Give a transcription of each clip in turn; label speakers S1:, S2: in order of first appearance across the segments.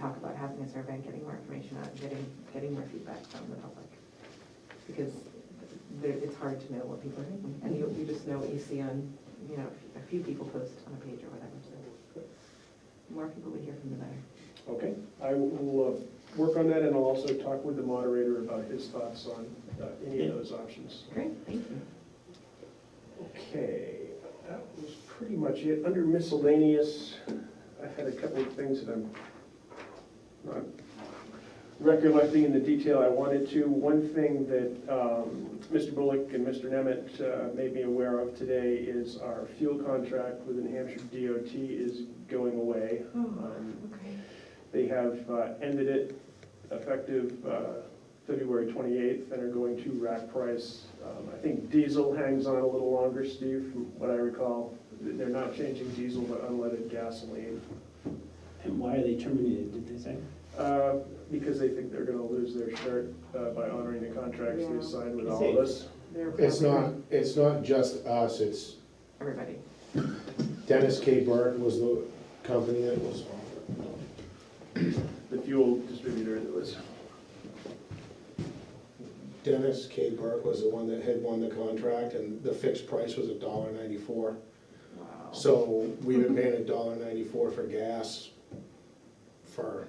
S1: talk about having a survey, getting more information out, getting, getting more feedback from the public. Because there, it's hard to know what people are thinking, and you, you just know what you see on, you know, a few people post on a page or whatever, so. the More people we hear from, the better.
S2: Okay, I will uh, work on that, and I'll also talk with the moderator about his thoughts on uh, any of those options.
S1: Great, thank you.
S2: Okay, that was pretty much it. Under miscellaneous, I had a couple of things that I'm not recollecting in the detail I wanted to. One thing that um, Mr. Bullock and Mr. Nemeth uh, made me aware of today is our fuel contract with the New Hampshire DOT is going away. Um,
S1: Oh, okay.
S2: They have uh, ended it effective uh, February 28th and are going to rack price. Um, I think diesel hangs on a little longer, Steve, from what I recall. They're not changing diesel, but unleaded gasoline,
S3: And why are they terminated, did they say?
S2: uh, because they think they're gonna lose their shirt uh, by honoring the contracts
S1: Yeah.
S2: they signed with
S3: Is
S2: all of
S3: it-
S2: us.
S1: They're
S4: It's not,
S1: probably-
S4: it's not just us, it's
S1: Everybody.
S4: Dennis K. Burton was the company that was on it.
S2: The fuel distributor that was,
S4: Dennis K. Burke was the one that had won the contract, and the fixed price was a dollar ninety-four.
S1: Wow.
S4: So we've been paying a dollar ninety-four for gas for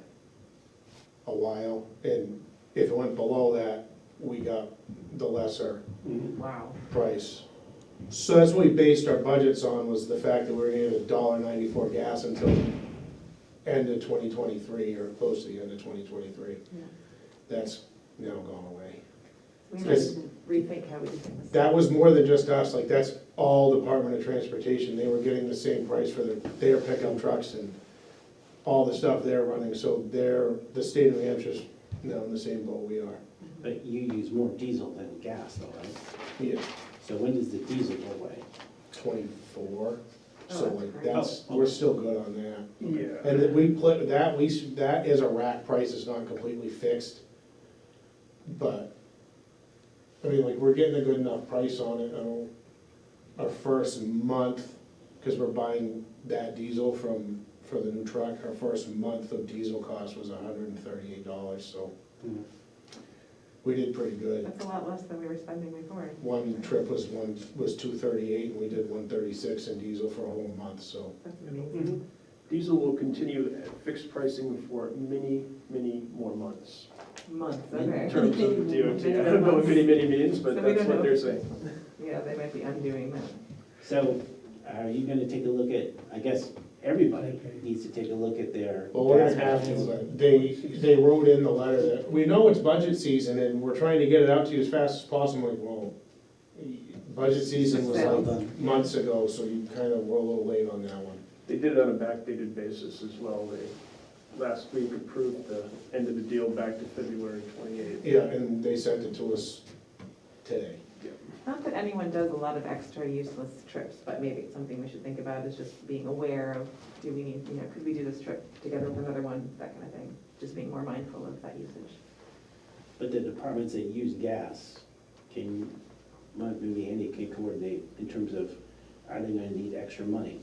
S4: a while, and if it went below that, we got the lesser
S1: Wow.
S4: price. So that's what we based our budgets on, was the fact that we were getting a dollar ninety-four gas until end of twenty twenty-three, or close to the end of twenty twenty-three.
S1: Yeah.
S4: That's now gone away.
S1: We have
S4: Yes.
S1: to rethink how we do things.
S4: That was more than just us, like, that's all Department of Transportation, they were getting the same price for their, their pickup trucks and all the stuff they're running, so they're, the state of New Hampshire's now in the same boat we are.
S3: But you use more diesel than gas though, right?
S4: Yeah,
S3: So when does the diesel go away?
S4: twenty-four, so
S1: Oh,
S4: like,
S1: that's
S4: that's,
S3: right.
S4: we're still good on that.
S2: yeah.
S4: And that we put, that, we, s- that is a rack price, it's not completely fixed. But, I mean, like, we're getting a good enough price on it, um, our first month, cause we're buying that diesel from, for the new truck, our first month of diesel cost was hundred and thirty-eight dollars, so we did pretty good.
S1: That's a lot less than we were spending before.
S4: One trip was one, was two thirty-eight, and we did one thirty-six in diesel for a whole month, so.
S1: That's amazing.
S2: Mhm. Diesel will continue at fixed pricing for many, many more months.
S1: Months,
S2: In
S1: okay.
S2: terms of DOT, I don't know what many, many means, but
S1: So we
S2: that's
S1: don't
S2: what
S1: know.
S2: they're saying.
S1: Yeah, they might be undoing that.
S3: So are you gonna take a look at, I guess, everybody needs to take a look at their
S4: Well, we're
S3: gas
S4: gonna have to,
S3: mileage.
S4: but they, they wrote in the letter that, we know it's budget season and we're trying to get it out to you as fast as possible, like, well, budget season was
S3: Hold
S4: like
S3: on.
S4: months ago, so you kind of were a little late on that one.
S2: They did it on a backdated basis as well. They, last week approved the end of the deal back to February twenty-eighth.
S4: Yeah, and they sent it to us today.
S1: Not that anyone does a lot of extra useless trips, but maybe it's something we should think about is just being aware of, do we need, you know, could we do this trip together with another one, that kind of thing. Just being more mindful of that usage.
S3: But the departments that use gas, can, might maybe Andy can coordinate in terms of, are they gonna need extra money?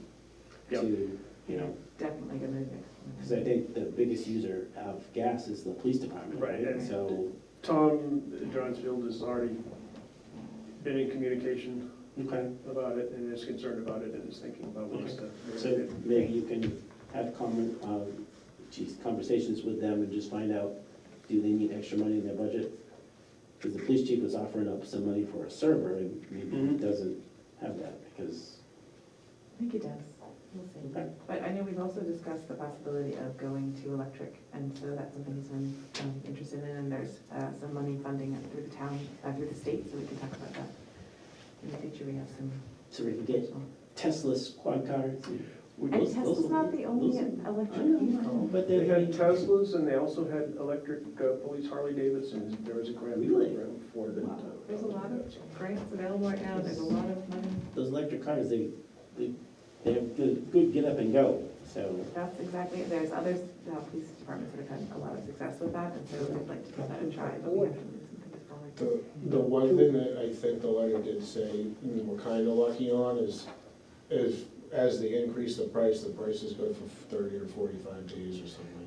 S2: Yep.
S3: To, you know,
S1: Definitely gonna do
S3: because I
S1: that.
S3: think the biggest user of gas is the police department.
S2: Right, and-
S3: So,
S2: Tom Johnsfield has already been in communication
S3: okay.
S2: about it and is concerned about it and is thinking about ways to.
S3: So maybe you can have common, um, geez, conversations with them and just find out, do they need extra money in their budget? Because the police chief was offering up some money for a server, and maybe he
S2: Mhm.
S3: doesn't have that, because,
S1: I think he does. We'll see.
S3: okay,
S1: But I know we've also discussed the possibility of going to electric, and so that's something he's been um, interested in, and there's uh, some money funding it through the town, uh, through the state, so we can talk about that. In the future, we have some.
S3: so we can get Tesla's quad cars.
S1: And
S2: We-
S1: Tesla's not the only electric vehicle.
S3: But
S2: They
S3: they're,
S2: had Teslas and they also had electric uh, police Harley Davidsons. There was a grant
S3: Really?
S2: program for that. uh,
S1: There's a lot of grants available right now, there's a lot of money.
S3: those electric cars, they, they, they have good, good get up and go, so.
S1: That's exactly, there's other uh, police departments that have had a lot of success with that, and so I'd like to give that a try, but we have to move some things forward.
S4: The, the one thing that I think the letter did say, and we're kinda lucky on, is, is as they increase the price, the price is good for thirty or forty-five days or something like